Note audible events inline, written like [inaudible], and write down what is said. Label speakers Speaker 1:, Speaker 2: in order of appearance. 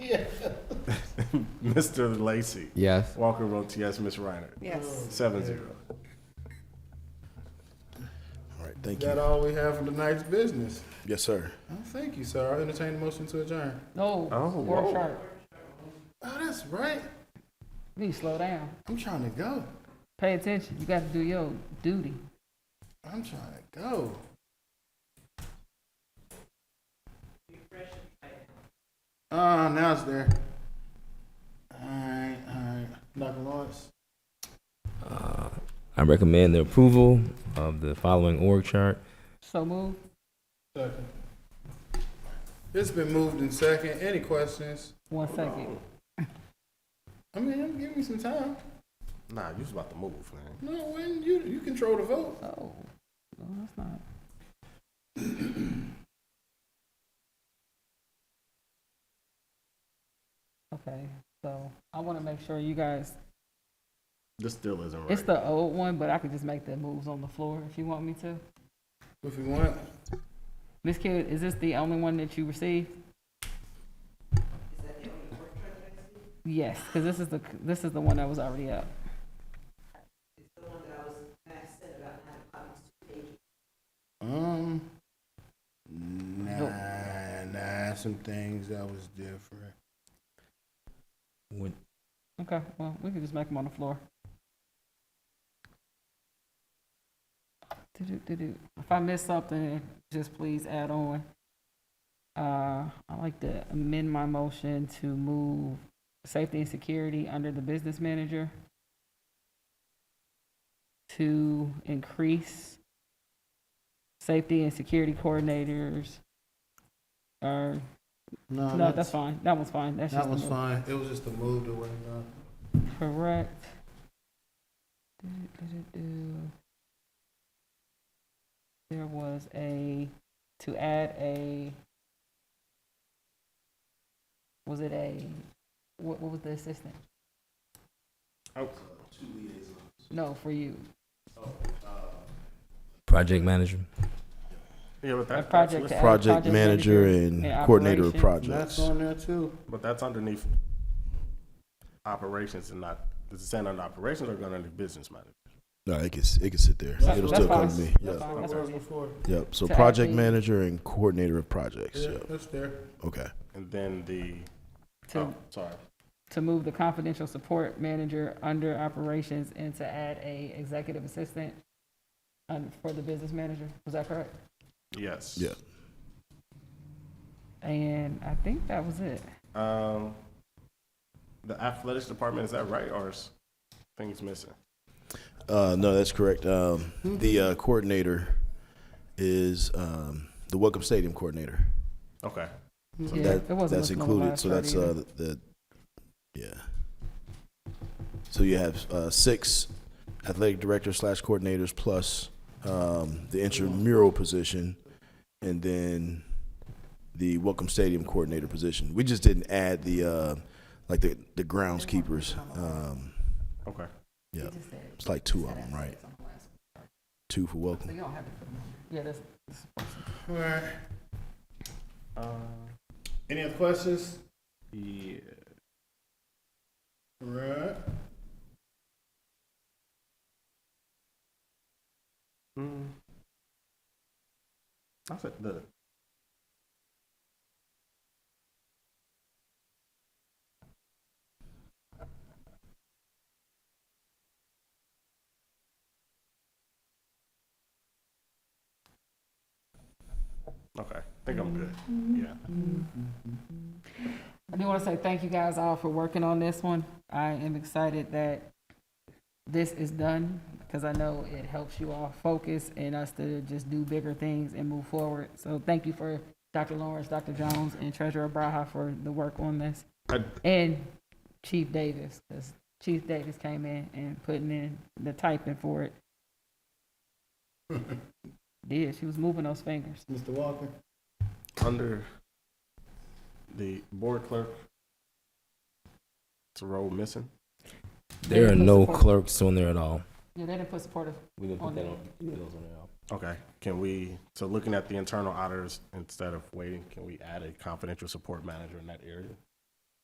Speaker 1: Mr. Lacy.
Speaker 2: Yes.
Speaker 1: Walker votes yes. Ms. Reiner.
Speaker 3: Yes.
Speaker 1: Seven zero.
Speaker 4: All right, thank
Speaker 5: that
Speaker 4: you.
Speaker 5: all we have for tonight's business?
Speaker 4: Yes, sir.
Speaker 5: Oh, thank you, sir. I'll entertain the motion to adjourn.
Speaker 3: No,
Speaker 1: Oh,
Speaker 3: work
Speaker 1: whoa.
Speaker 3: sharp.
Speaker 5: Oh, that's right.
Speaker 3: You need to slow down.
Speaker 5: I'm trying to go.
Speaker 3: Pay attention. You got to do your duty.
Speaker 5: I'm trying to go. Ah, now it's there. Alright, alright. Dr. Lawrence.
Speaker 2: I recommend the approval of the following org chart.
Speaker 3: So move.
Speaker 5: Second. It's been moved in second. Any questions?
Speaker 3: One second.
Speaker 5: I mean, give me some time.
Speaker 1: Nah, you was about to move, man.
Speaker 5: No, when you you control the vote.
Speaker 3: Oh, no, that's not. [clears throat] Okay, so I want to make sure you guys,
Speaker 1: This still isn't right.
Speaker 3: it's the old one, but I could just make the moves on the floor if you want me to.
Speaker 5: If you want.
Speaker 3: Ms. Kidd, is this the only one that you received? Yes, because this is the, this is the one that was already up.
Speaker 5: Um Nah, nah, some things that was different.
Speaker 2: Would-
Speaker 3: Okay, well, we can just make them on the floor. Do-do-do-do. If I miss something, just please add on. Uh, I like to amend my motion to move safety and security under the business manager to increase safety and security coordinators. Or,
Speaker 5: No,
Speaker 3: no, Uh, that's fine. That one's fine. That's just
Speaker 5: That
Speaker 3: the
Speaker 5: was
Speaker 3: move.
Speaker 5: fine. It was just a move to win. uh,
Speaker 3: Correct. Do-do-do-do. There was a, to add a, was it a, what, what was the assistant?
Speaker 1: Oh.
Speaker 3: No, for you,
Speaker 2: Project manager.
Speaker 1: Yeah, but
Speaker 3: a
Speaker 1: that, that's
Speaker 3: project
Speaker 1: listed-
Speaker 3: to add.
Speaker 4: Project manager and
Speaker 3: and
Speaker 4: coordinator of
Speaker 3: operations.
Speaker 5: That's
Speaker 4: projects.
Speaker 5: on there too.
Speaker 1: but that's underneath operations and not. Does it stand under operations or going under business manager?
Speaker 4: No, it can, it can sit there.
Speaker 3: That's-
Speaker 4: It'll
Speaker 3: that's
Speaker 4: still come
Speaker 3: fine.
Speaker 4: to me.
Speaker 3: That's
Speaker 4: Yep,
Speaker 3: fine. That's what it is.
Speaker 5: before.
Speaker 4: yep. So
Speaker 3: To add
Speaker 4: project
Speaker 3: the-
Speaker 4: manager and coordinator of projects.
Speaker 5: Yeah,
Speaker 4: Yep,
Speaker 5: that's there.
Speaker 4: okay.
Speaker 1: And then the.
Speaker 3: To,
Speaker 1: oh, sorry.
Speaker 3: to move the confidential support manager under operations and to add a executive assistant um, for the business manager, was that correct?
Speaker 1: Yes.
Speaker 4: Yeah.
Speaker 3: And I think that was it.
Speaker 1: Um, the athletics department is that right or is things missing?
Speaker 4: Uh, no, that's correct. Um, the uh, coordinator is um, the Welcome Stadium coordinator.
Speaker 1: Okay.
Speaker 4: So
Speaker 3: Yeah,
Speaker 4: that,
Speaker 3: it wasn't
Speaker 4: that's
Speaker 3: listed on the
Speaker 4: included.
Speaker 3: last
Speaker 4: So
Speaker 3: chart
Speaker 4: that's
Speaker 3: either.
Speaker 4: uh, the, the yeah. So you have uh, six athletic directors slash coordinators plus um, the intramural position, and then the Welcome Stadium coordinator position. We just didn't add the uh, like the the groundskeepers. Um,
Speaker 1: Okay.
Speaker 4: yeah,
Speaker 3: Just said-
Speaker 4: it's like two of them, right? Two for Welcome.
Speaker 3: So you don't have to put them on. Yeah, that's,
Speaker 5: All right.
Speaker 1: Uh,
Speaker 5: Any other questions?
Speaker 1: yeah.
Speaker 5: All right.
Speaker 1: Mm. I said the. Okay, I think I'm good.
Speaker 3: Mm-hmm.
Speaker 1: Yeah.
Speaker 3: I do want to say thank you guys all for working on this one. I am excited that this is done because I know it helps you all focus and us to just do bigger things and move forward. So thank you for Dr. Lawrence, Dr. Jones, and Treasurer Braha for the work on this.
Speaker 1: I-
Speaker 3: And Chief Davis, because Chief Davis came in and putting in the typing for [laughs] it. Did, she was moving those fingers.
Speaker 5: Mr. Walker?
Speaker 1: under the board clerk. It's a role missing.
Speaker 2: There are
Speaker 3: Put
Speaker 2: no
Speaker 3: support-
Speaker 2: clerks on there at all.
Speaker 3: Yeah, they didn't put supportive
Speaker 2: We're gonna
Speaker 3: put that on-
Speaker 1: Okay, can we, so looking at the internal auditors, instead of waiting, can we add a confidential support manager in that area?